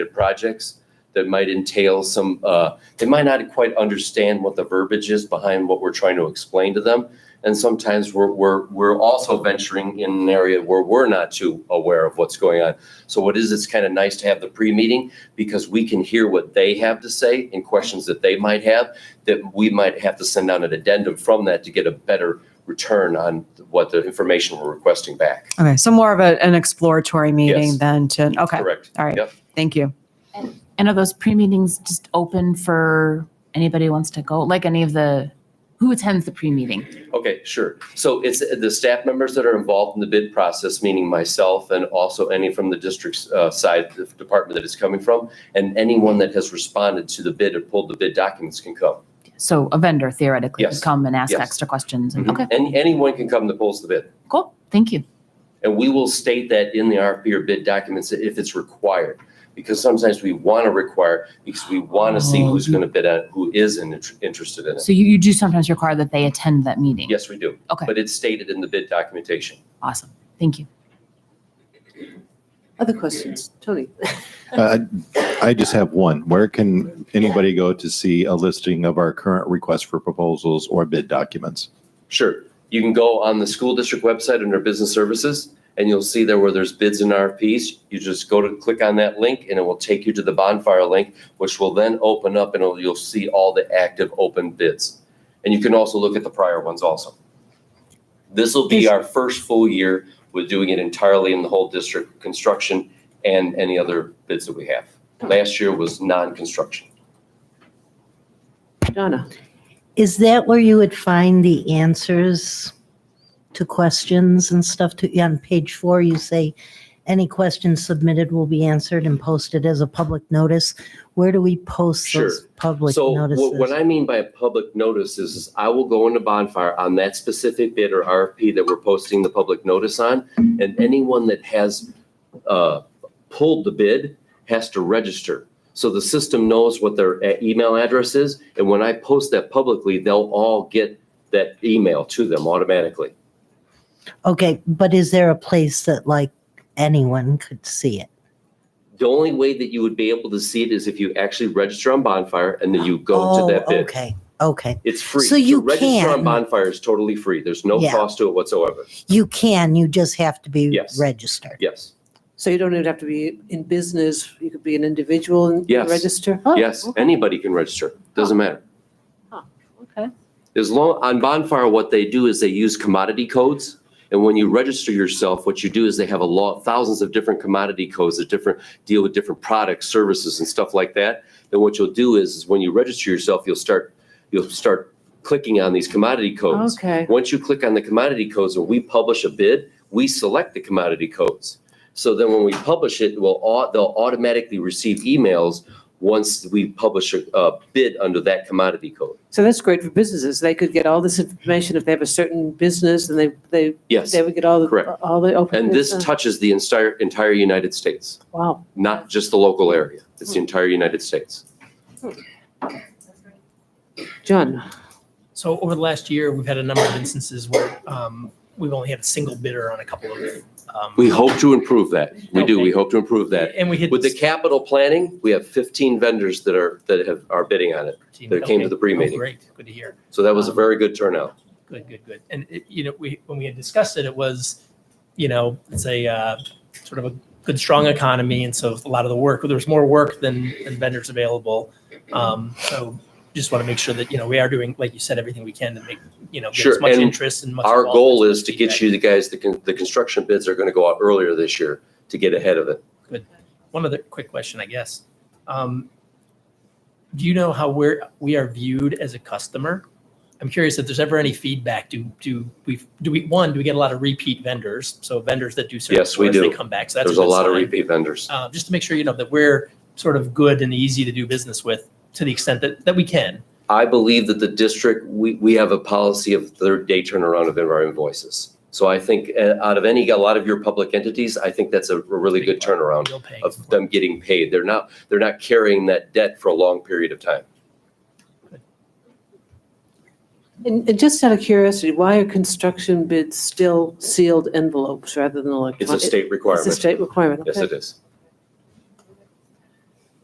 projects that might entail some, uh, they might not quite understand what the verbiage is behind what we're trying to explain to them. And sometimes we're, we're, we're also venturing in an area where we're not too aware of what's going on. So what is, it's kind of nice to have the pre-meeting because we can hear what they have to say and questions that they might have that we might have to send out an addendum from that to get a better return on what the information we're requesting back. Okay, so more of a, an exploratory meeting Yes. than to, okay, Correct. all right, Yep. thank you. And are those pre-meetings just open for anybody who wants to go? Like any of the, who attends the pre-meeting? Okay, sure. So it's the staff members that are involved in the bid process, meaning myself and also any from the district's uh, side, the department that it's coming from, and anyone that has responded to the bid or pulled the bid documents can come. So a vendor theoretically Yes. could come and ask Yes. extra questions. and- Mhm. Okay, And anyone can come that pulls the bid. cool. Thank you. And we will state that in the RFP or bid documents if it's required. Because sometimes we want to require, because we want to see who's going to bid on, it, who is in- interested in it. So you, you do sometimes require that they attend that meeting? Yes, we do. Okay. But it's stated in the bid documentation. Awesome. Thank you. Other questions, Tony? Uh, I just have one. Where can anybody go to see a listing of our current requests for proposals or bid documents? Sure. You can go on the school district website under business services and you'll see there where there's bids and RFPs. You just go to click on that link and it will take you to the bonfire link, which will then open up and it'll- you'll see all the active open bids. And you can also look at the prior ones also. This will be our first full year with doing it entirely in the whole district, construction and any other bids that we have. Last year was non-construction. Donna? Is that where you would find the answers to questions and stuff? To, yeah, on page four, you say, any questions submitted will be answered and posted as a public notice. Where do we post those Sure. public so wh- notices? what I mean by a public notice is, is I will go into Bonfire on that specific bid or RFP that we're posting the public notice on, and anyone that has uh, pulled the bid has to register. So the system knows what their uh, email address is, and when I post that publicly, they'll all get that email to them automatically. Okay, but is there a place that like anyone could see it? The only way that you would be able to see it is if you actually register on Bonfire and then you go oh, to that bid. Okay, okay. It's free. So To you Register on can- Bonfire is totally free. There's no Yeah. cost to it whatsoever. You can, you just have to be Yes. registered. Yes, So you don't even have to be in business, you could be an individual and Yes. register? yes, anybody can register, doesn't matter. Okay. As long, on Bonfire, what they do is they use commodity codes. And when you register yourself, what you do is they have a lot, thousands of different commodity codes that different, deal with different products, services and stuff like that. Then what you'll do is, is when you register yourself, you'll start, you'll start clicking on these commodity codes. Oh, Okay, Once you click on the commodity codes and we publish a bid, we select the commodity codes. So then when we publish it, we'll, au- they'll automatically receive emails once we publish a, a bid under that commodity code. so that's great for businesses. They could get all this information if they have a certain business and they, they, Yes, they would get all Correct. the, all the open. and this business. touches the entire, entire United States, Wow, not just the local area. It's the entire United States. John, So over the last year, we've had a number of instances where um, we've only had a single bidder on a couple of. um, We hope to improve that. We do, we hope to improve that. And we hit. With the capital planning, we have 15 vendors that are, that have, are bidding on it. that came to the pre-meeting. Oh, Great, good to hear. So that was a very good turnout. Good, good, good. And it- you know, we, when we had discussed it, it was, you know, it's a uh, sort of a good, strong economy. And so a lot of the work, there was more work than than vendors available. Um, So just want to make sure that, you know, we are doing, like you said, everything we can to make, you know, get Sure, as much and interest and much. Our involvement, goal as is much to get feedback. you the guys, the, con- the construction bids are going to go out earlier this year to get ahead of it. One other quick question, I guess. Um, do you know how we're we are viewed as a customer? I'm curious if there's ever any feedback. Do do we do we one do we get a lot of repeat vendors? So vendors that do certain Yes, we for us, do. They come back. So that's There's a good lot of sign. repeat vendors. Uh, just to make sure you know that we're sort of good and easy to do business with to the extent that that we can. I believe that the district, we, we have a policy of third day turnaround of our invoices. So I think uh, out of any, a lot of your public entities, I think that's a really good turnaround Bill paying of for it. them getting paid. They're not, they're not carrying that debt for a long period of time. and, and just out of curiosity, why are construction bids still sealed envelopes rather than It's a electronic? state It's a requirement. state requirement, Yes, okay. it is.